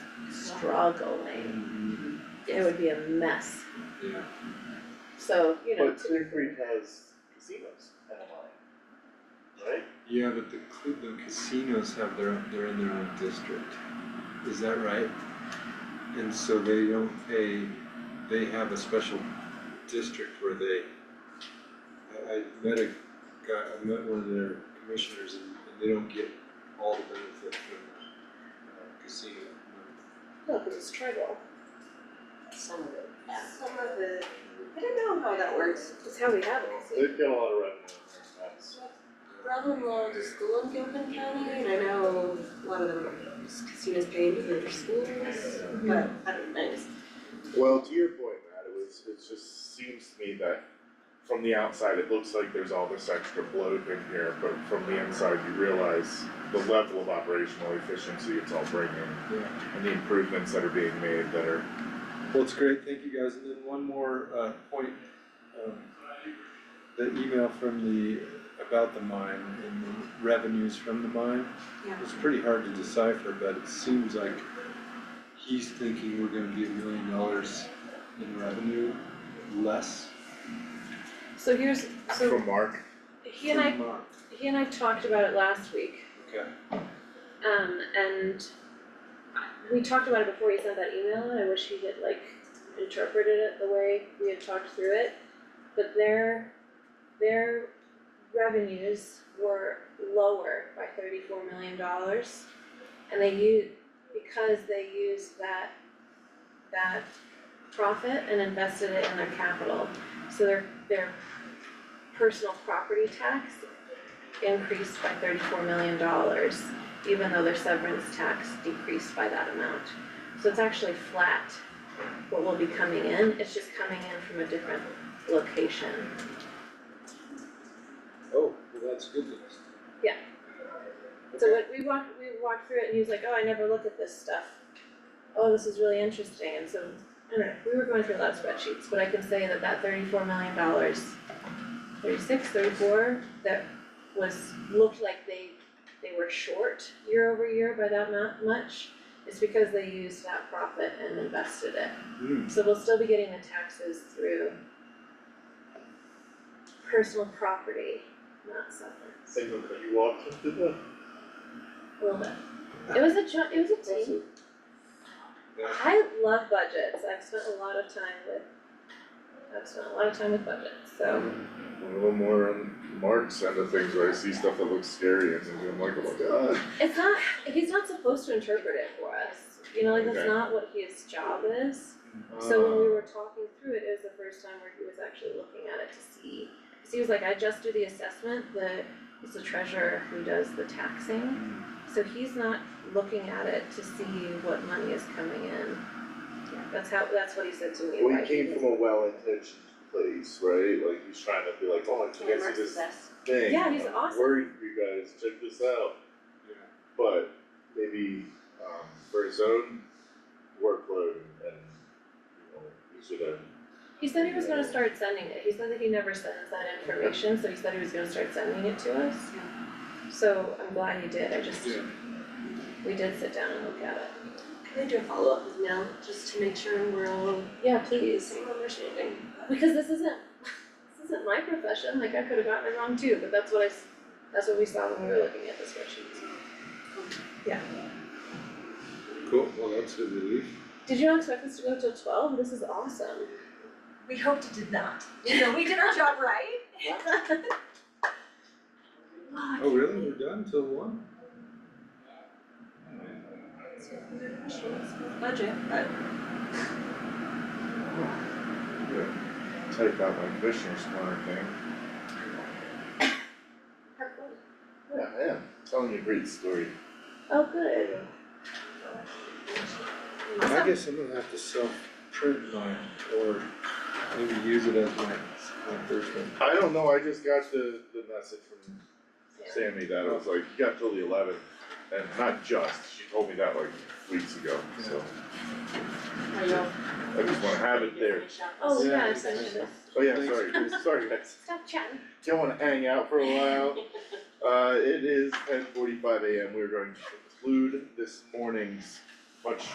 struggling, it would be a mess. Yeah. So, you know, But Clear Creek has casinos and a line, right? Yeah, but the cl- the casinos have their own, they're in their own district, is that right? And so they don't pay, they have a special district where they, I I met a guy, I met one of their commissioners and and they don't get all the benefit from uh casino money. No, cause it's tribal. Some of it. Some of the, I don't know how that works. that's how we have it. They've got a lot of revenue in there, that's. Brother-in-law went to school in Gilpin County and I know a lot of them, casinos pay into their schools, but I don't know. Well, to your point, Matt, it was, it just seems to me that from the outside, it looks like there's all this extra bloat in here, but from the inside, you realize the level of operational efficiency it's all bringing Yeah. and the improvements that are being made that are, Well, it's great, thank you guys, and then one more uh point, um the email from the, about the mine and the revenues from the mine. Yeah. It's pretty hard to decipher, but it seems like he's thinking we're gonna be a million dollars in revenue less So here's, so from Mark. he and I, per month, he and I talked about it last week, okay? um, and I- we talked about it before he sent that email, and I wish he had like interpreted it the way we had talked through it. But their, their revenues were lower by thirty-four million dollars. And they u- because they used that, that profit and invested it in their capital. So their, their personal property tax increased by thirty-four million dollars, even though their severance tax decreased by that amount. So it's actually flat, what will be coming in, it's just coming in from a different location. Oh, well, that's good news. Yeah. So when we walked, we walked through it and he was like, oh, I never look at this stuff. Oh, this is really interesting, and so, I don't know, we were going through a lot of spreadsheets, but I can say that that thirty-four million dollars, thirty-six, thirty-four, that was, looked like they, they were short year over year by that mu- much, is because they used that profit and invested it. Hmm, So we'll still be getting the taxes through personal property, not severance. you walked into the. A little bit. It was a ju- it was a team. that- I love budgets. I've spent a lot of time with I've spent a lot of time with budgets, so A little more on Mark's end of things where I see stuff that looks scary and I'm like, oh my god. it's not he's not supposed to interpret it for us. You know, like that's Okay. not what his job is. So when we were talking through it, it was the first time where he was actually looking at it to see. Cause he was like, I just do the assessment, the it's the treasurer who does the taxing. Hmm, So he's not looking at it to see what money is coming in. That's how, that's what he said to me, Well, he like, came from a well-intentioned place, right? Like he's trying to be like, oh, I think I see this thing. Yeah, he's I'm awesome. Worried for you guys, check this out. yeah. But maybe um for his own workload and you know, he should have. He said he was gonna start sending it, he said that he never sends that information, so he said he was gonna start sending it to us. So I'm glad he did, I just, Yeah. we did sit down and look at it. Can I do a follow-up with Mel, just to make sure we're all Yeah, the please, same understanding? because this isn't, this isn't my profession, like I could have gotten it wrong too, but that's what I, s- that's what we saw when we were looking at the spreadsheets. Cool, well, that's a relief. Did you not expect this to go till twelve? This is awesome. We hoped it did not. So we did our job right? Oh, really? We're done till one? So we're questions with budget, but Type out my commissioner's corner thing. Yeah, I am, telling you a great story. Oh, good. I guess I'm gonna have to self-print mine or maybe use it as my, my first one. I don't know, I just got the the message from Yeah. Sammy that it was like, you got till the eleventh, and not just, she told me that like weeks ago, so. I know. I just wanna have it there. Oh, Yeah, yeah, I it's sent you nice. this. Oh yeah, Thanks. sorry, sorry guys, Stop chatting. don't wanna hang out for a while. Uh, it is ten forty-five AM, we're going to conclude this morning's much